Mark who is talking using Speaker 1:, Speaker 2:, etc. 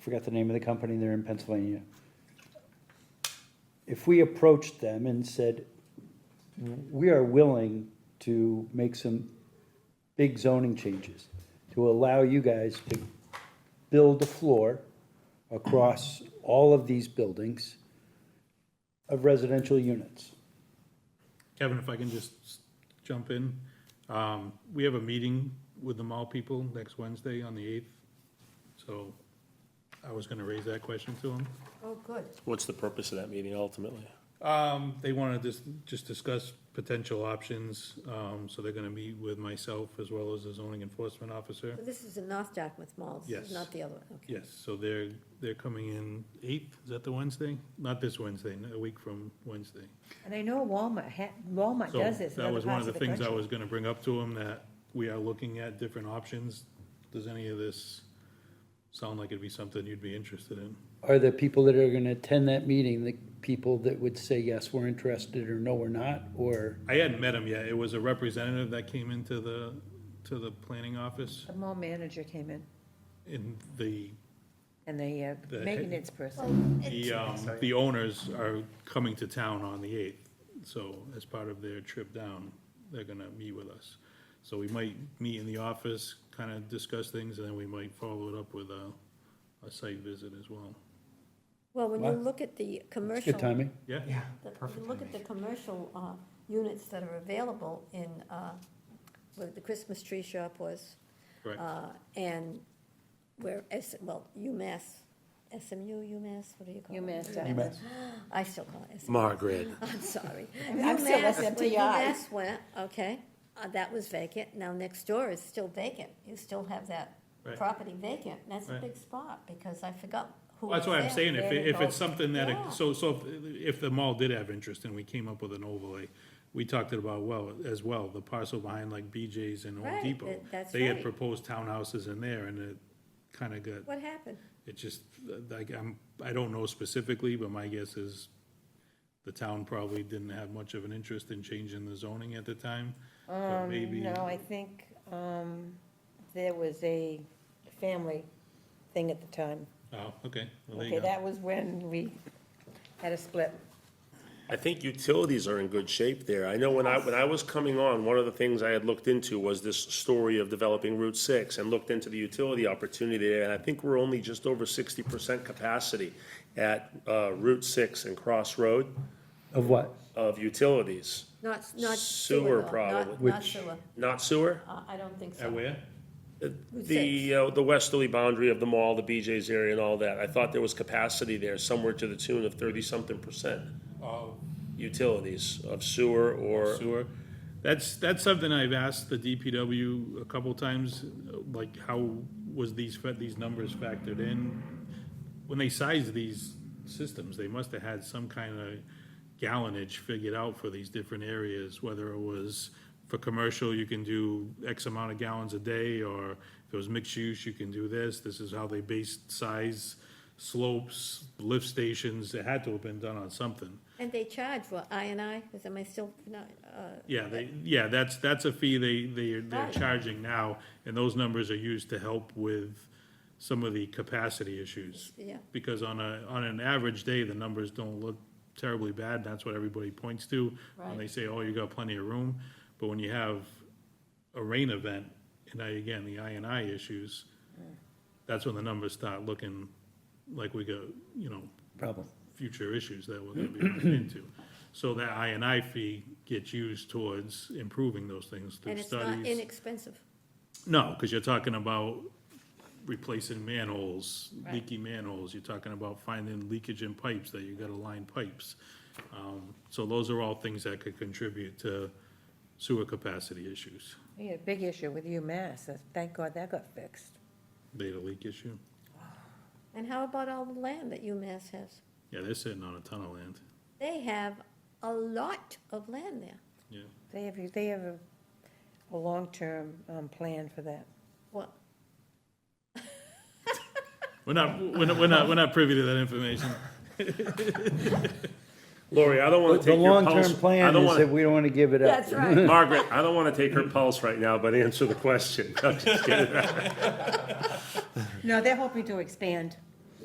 Speaker 1: forgot the name of the company, they're in Pennsylvania. If we approached them and said, we are willing to make some big zoning changes to allow you guys to build a floor across all of these buildings of residential units.
Speaker 2: Kevin, if I can just s- jump in, um, we have a meeting with the mall people next Wednesday on the eighth. So I was gonna raise that question to them.
Speaker 3: Oh, good.
Speaker 4: What's the purpose of that meeting ultimately?
Speaker 2: Um, they wanna just, just discuss potential options, um, so they're gonna meet with myself as well as the zoning enforcement officer.
Speaker 3: But this is in North Dartmouth Mall, this is
Speaker 2: Yes.
Speaker 3: not the other one, okay.
Speaker 2: Yes, so they're, they're coming in eighth, is that the Wednesday? Not this Wednesday, a week from Wednesday.
Speaker 5: And I know Walmart, ha- Walmart
Speaker 2: So
Speaker 5: does this in
Speaker 2: That
Speaker 5: other
Speaker 2: was one
Speaker 5: parts
Speaker 2: of
Speaker 5: of
Speaker 2: the
Speaker 5: the
Speaker 2: things I
Speaker 5: country.
Speaker 2: was gonna bring up to him, that we are looking at different options. Does any of this sound like it'd be something you'd be interested in?
Speaker 1: Are the people that are gonna attend that meeting, the people that would say, yes, we're interested, or no, we're not, or?
Speaker 2: I hadn't met him yet. It was a representative that came into the, to the planning office
Speaker 5: The mall manager came in
Speaker 2: and the,
Speaker 5: and the uh,
Speaker 2: The-
Speaker 5: maintenance person.
Speaker 2: the, um, the owners are coming to town on the eighth. So as part of their trip down, they're gonna meet with us. So we might meet in the office, kinda discuss things, and then we might follow it up with a, a site visit as well.
Speaker 3: Well, when you
Speaker 1: What?
Speaker 3: look at the commercial.
Speaker 1: Good timing?
Speaker 2: Yeah?
Speaker 6: Yeah,
Speaker 3: the-
Speaker 6: perfect
Speaker 3: You look at the commercial uh, units that are available in, uh, where the Christmas tree shop was,
Speaker 2: Correct.
Speaker 3: uh, and where, S- well, UMass, SMU, UMass, what do you call it?
Speaker 5: UMass Dartmouth.
Speaker 1: UMass.
Speaker 3: I still call it SMU,
Speaker 4: Margaret,
Speaker 3: I'm sorry.
Speaker 5: I'm still
Speaker 3: UMass, when
Speaker 5: SMTI.
Speaker 3: UMass went, okay, uh, that was vacant, now next door is still vacant, you still have that
Speaker 2: Right.
Speaker 3: property vacant, that's a
Speaker 2: Right.
Speaker 3: big spot, because I forgot who
Speaker 2: Well, That's
Speaker 3: was
Speaker 2: why I'm
Speaker 3: there.
Speaker 2: saying, if, it- if it's
Speaker 5: involved.
Speaker 2: something that,
Speaker 3: Yeah.
Speaker 2: it- so, so if if the mall did have interest and we came up with an overlay, we talked about, well, as well, the parcel behind like BJ's and Home
Speaker 3: Right,
Speaker 2: Depot.
Speaker 3: that- that's
Speaker 2: They had
Speaker 3: right.
Speaker 2: proposed townhouses in there and it kinda got,
Speaker 3: What happened?
Speaker 2: it just, like, I'm, I don't know specifically, but my guess is the town probably didn't have much of an interest in changing the zoning at the time,
Speaker 3: Um,
Speaker 2: but maybe,
Speaker 5: No, I think um, there was a family thing at the time.
Speaker 2: oh, okay, well, there you go.
Speaker 5: Okay, that was when we had a split.
Speaker 4: I think utilities are in good shape there. I know when I, when I was coming on, one of the things I had looked into was this story of developing Route Six and looked into the utility opportunity there, and I think we're only just over sixty percent capacity at, uh, Route Six and Cross Road
Speaker 1: Of what?
Speaker 4: of utilities.
Speaker 3: Not, not
Speaker 4: Sewer
Speaker 3: sewer, though, not,
Speaker 4: probably.
Speaker 3: not
Speaker 1: Which-
Speaker 3: sewer,
Speaker 4: Not sewer?
Speaker 3: Uh, I don't think so.
Speaker 2: At where?
Speaker 4: The, uh, the westerly boundary of the mall, the BJ's area and all that, I thought there was capacity there somewhere to the tune of thirty-something percent
Speaker 2: Oh,
Speaker 4: utilities of sewer or,
Speaker 2: sewer. That's, that's something I've asked the DPW a couple times, like how was these, fa- these numbers factored in? When they sized these systems, they must have had some kind of gallonage figured out for these different areas, whether it was for commercial, you can do X amount of gallons a day, or if it was mixed use, you can do this, this is how they based size, slopes, lift stations, it had to have been done on something.
Speaker 3: And they charge what, I and I, is, am I still, not, uh,
Speaker 2: Yeah, they, yeah, that's, that's a fee they, they, they're
Speaker 3: Right.
Speaker 2: charging now, and those numbers are used to help with some of the capacity issues.
Speaker 3: Yeah.
Speaker 2: Because on a, on an average day, the numbers don't look terribly bad, that's what everybody points to. When they
Speaker 3: Right.
Speaker 2: say, oh, you got plenty of room, but when you have a rain event, and now again, the I and I issues,
Speaker 3: Mm.
Speaker 2: that's when the numbers start looking like we go, you know,
Speaker 1: Problem.
Speaker 2: future issues that we're gonna be running into. So that I and I fee gets used towards improving those things
Speaker 3: and
Speaker 2: through
Speaker 3: it's not
Speaker 2: studies.
Speaker 3: inexpensive.
Speaker 2: No, because you're talking about replacing manholes, leaky manholes, you're talking about finding leakage in pipes, that you gotta line pipes. Um, So those are all things that could contribute to sewer capacity issues,
Speaker 5: We had a big issue with UMass. Uh, Thank God that got fixed.
Speaker 2: data leak issue.
Speaker 3: And how about all the land that UMass has?
Speaker 2: Yeah, they're sitting on a ton of land,
Speaker 3: They have a lot of land there.
Speaker 2: yeah.
Speaker 5: They have, they have a, a long-term um, plan for that.
Speaker 3: What,
Speaker 2: We're not, we're not, we're not, we're not privy to that information.
Speaker 4: Lori, I don't wanna
Speaker 1: The
Speaker 4: take your
Speaker 1: long-term
Speaker 4: pulse. I
Speaker 1: plan
Speaker 4: don't
Speaker 1: is that
Speaker 4: wanna,
Speaker 1: we don't wanna give it up.
Speaker 3: that's right,
Speaker 4: Margaret, I don't wanna take her pulse right now, but answer the question. I'm just kidding.
Speaker 5: No, they're hoping to expand.